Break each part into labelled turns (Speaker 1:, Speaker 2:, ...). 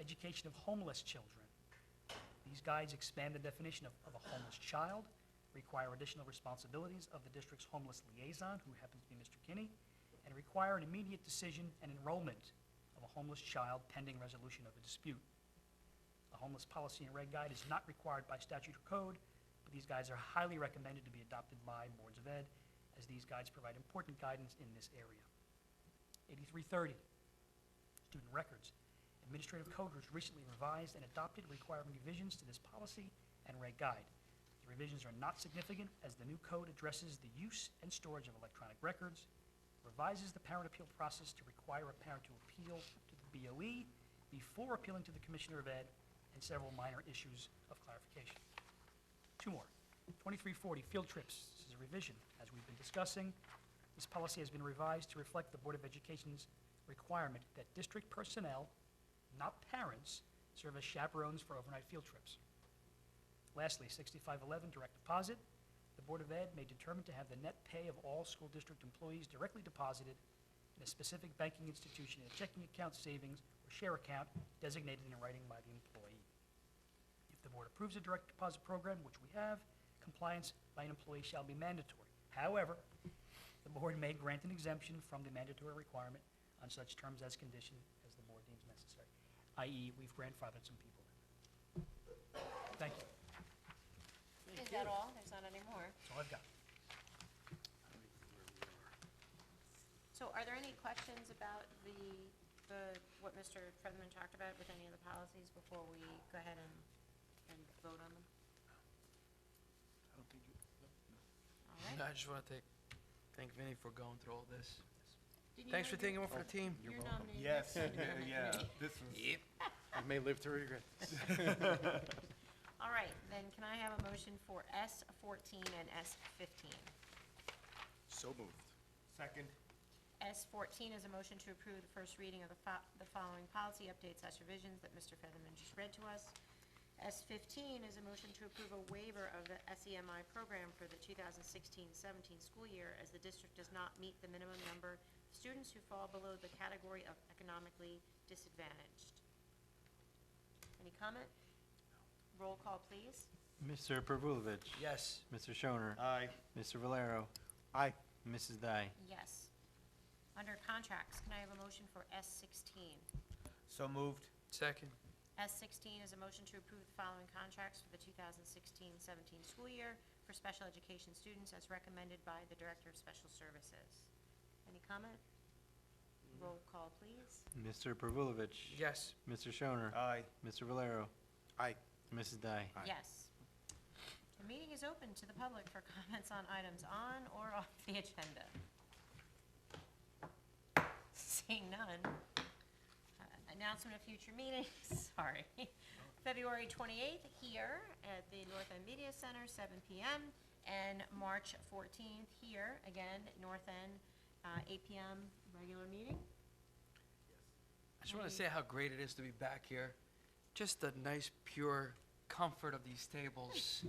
Speaker 1: education of homeless children. These guides expand the definition of, of a homeless child, require additional responsibilities of the district's homeless liaison, who happens to be Mr. Kinney, and require an immediate decision and enrollment of a homeless child pending resolution of a dispute. A homeless policy and reg guide is not required by statute or code, but these guides are highly recommended to be adopted by boards of ed, as these guides provide important guidance in this area. 8330, student records. Administrative code was recently revised and adopted requiring revisions to this policy and reg guide. The revisions are not significant as the new code addresses the use and storage of electronic records, revises the parent appeal process to require a parent to appeal to the BOE before appealing to the Commissioner of Ed, and several minor issues of clarification. Two more. 2340, field trips. This is a revision, as we've been discussing. This policy has been revised to reflect the Board of Education's requirement that district personnel, not parents, serve as chaperones for overnight field trips. Lastly, 6511, direct deposit. The Board of Ed may determine to have the net pay of all school district employees directly deposited in a specific banking institution in a checking account, savings, or share account designated in writing by the employee. If the board approves a direct deposit program, which we have, compliance by an employee shall be mandatory. However, the board may grant an exemption from the mandatory requirement on such terms as condition as the board deems necessary, i.e., E, we've grandfathered some people. in. Thank you.
Speaker 2: Is that all? There's not any more.
Speaker 1: That's all I've got.
Speaker 2: So are there any questions about the, the, what Mr. Fredman talked about with any of the policies before we go ahead and, and vote on them?
Speaker 3: I don't think you,
Speaker 2: All right.
Speaker 4: I just want to thank Vinny for going through all this.
Speaker 2: Did you
Speaker 4: Thanks for
Speaker 2: nominate-
Speaker 4: taking one
Speaker 3: Oh.
Speaker 4: for the team.
Speaker 2: You're nominated.
Speaker 3: yes,
Speaker 2: next time you're on that
Speaker 3: yeah,
Speaker 2: committee.
Speaker 3: this was.
Speaker 4: Yep.
Speaker 5: I may live to regret this.
Speaker 2: All right, then can I have a motion for S fourteen and S fifteen?
Speaker 5: So moved.
Speaker 3: Second,
Speaker 2: S fourteen is a motion to approve the first reading of the fo- the following policy updates slash revisions that Mr. Featherman just read to us. S fifteen is a motion to approve a waiver of the SEMI program for the 2016-17 school year as the district does not meet the minimum number of students who fall below the category of economically disadvantaged. Any comment? Roll call, please.
Speaker 6: Mr. Pervulovich.
Speaker 4: Yes.
Speaker 6: Mr. Shoner.
Speaker 3: aye.
Speaker 6: Mr. Valero.
Speaker 5: Aye.
Speaker 6: Mrs. Dai.
Speaker 2: Yes. Under contracts, can I have a motion for S sixteen?
Speaker 3: So moved,
Speaker 4: Second.
Speaker 2: S sixteen is a motion to approve the following contracts for the 2016-17 school year for special education students as recommended by the Director of Special Services. Any comment? Roll call, please.
Speaker 6: Mr. Pervulovich.
Speaker 4: Yes.
Speaker 6: Mr. Shoner.
Speaker 3: aye.
Speaker 6: Mr. Valero.
Speaker 5: Aye.
Speaker 6: Mrs. Dai.
Speaker 5: Aye.
Speaker 2: Yes. The meeting is open to the public for comments on items on or off the agenda. Seeing none. Uh, Announcement of future meetings, sorry. February 28th here at the North End Media Center, 7 PM, and March 14th here, again, North End, uh, 8 PM, regular meeting.
Speaker 4: I just want to say how great it is to be back here. Just the nice, pure comfort of these tables.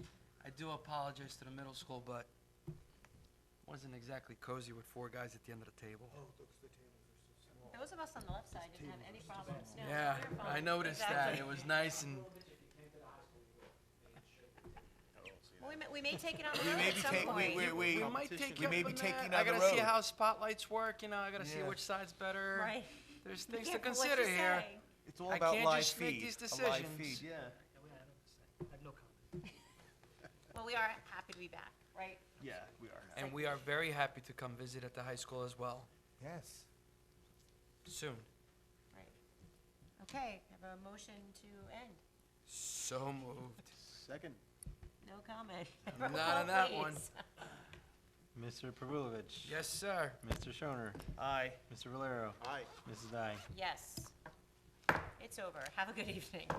Speaker 4: I do apologize to the middle school, but wasn't exactly cozy with four guys at the end of the table.
Speaker 2: Those of us on the left side didn't have any problems. No,
Speaker 4: Yeah,
Speaker 2: we were
Speaker 4: I
Speaker 2: fine.
Speaker 4: noticed that.
Speaker 2: Exactly.
Speaker 4: It was nice and
Speaker 2: Well, we may, we may take it on the
Speaker 3: We
Speaker 2: road
Speaker 3: may
Speaker 2: at
Speaker 3: be
Speaker 2: some
Speaker 3: taking,
Speaker 2: point.
Speaker 3: we, we, we.
Speaker 4: we might take
Speaker 3: We
Speaker 4: up
Speaker 3: may be
Speaker 4: on
Speaker 3: taking
Speaker 4: that. I
Speaker 3: on the
Speaker 4: gotta see
Speaker 3: road.
Speaker 4: how spotlights work, you know, I gotta see
Speaker 3: Yeah.
Speaker 4: which side's better.
Speaker 2: Right.
Speaker 4: There's
Speaker 2: Be
Speaker 4: things to
Speaker 2: careful what you
Speaker 4: consider here.
Speaker 2: say.
Speaker 3: It's all
Speaker 4: I
Speaker 3: about
Speaker 4: can't
Speaker 3: live
Speaker 4: just make
Speaker 3: feed,
Speaker 4: these
Speaker 3: a live
Speaker 4: decisions.
Speaker 3: feed, Yeah.
Speaker 1: I don't have to say. I have no comment.
Speaker 2: Well, we are happy to be back, right?
Speaker 3: Yeah, we are.
Speaker 4: And we are very happy to come visit at the high school as well,
Speaker 3: Yes.
Speaker 4: soon.
Speaker 2: Right. Okay, have a motion to end.
Speaker 4: So moved.
Speaker 5: Second.
Speaker 2: No comment.
Speaker 4: Not
Speaker 2: Roll
Speaker 4: on that
Speaker 2: please.
Speaker 4: one.
Speaker 6: Mr. Pervulovich.
Speaker 4: Yes, sir.
Speaker 6: Mr. Shoner.
Speaker 3: Aye.
Speaker 6: Mr. Valero.
Speaker 5: Aye.
Speaker 6: Mrs. Dai.
Speaker 2: Yes. It's over. Have a good evening.